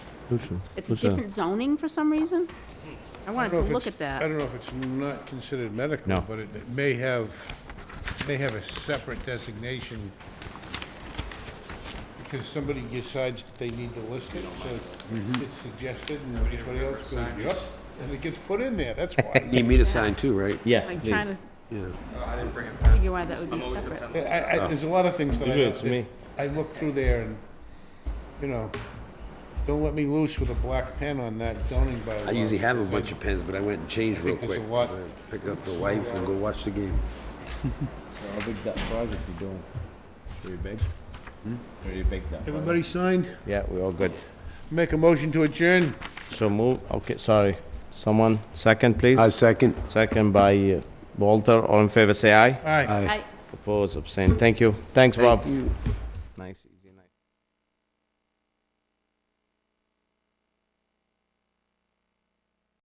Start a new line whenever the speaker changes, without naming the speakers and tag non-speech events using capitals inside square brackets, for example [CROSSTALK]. It's a different zoning for some reason? I wanted to
don't know if
look
it's-
at
I
that.
don't know if it's not considered medical,
No.
but it it may have, may have a separate designation because somebody decides that they need to list it,
Mm-hmm.
so it's suggested and everybody else goes, yep, and it gets put in there, that's
[LAUGHS]
why.
Need me to sign too, right?
Yeah.
Like
please.
trying to
Yeah.
figure why that would be separate.
I, I, there's a lot of things that I,
Usually it's
don't-
me.
I look through there and, you know, don't let me loose with a black pen on that zoning bylaw.
I usually have a bunch of pens, but I went and changed real
think there's
quick.
a lot-
Pick up the wife and go watch the game.
How big that project you doing? Pretty big? Pretty big that project.
Everybody signed?
Hmm? Yeah, we're all good.
Make a motion to adjourn?
So move, okay, sorry. Someone, second, please?
I second.
Second by uh, Walter, all in favor, say aye.
Aye.
I-
Oppose, abstain. Thank you. Thanks, Bob.
you.
Nice.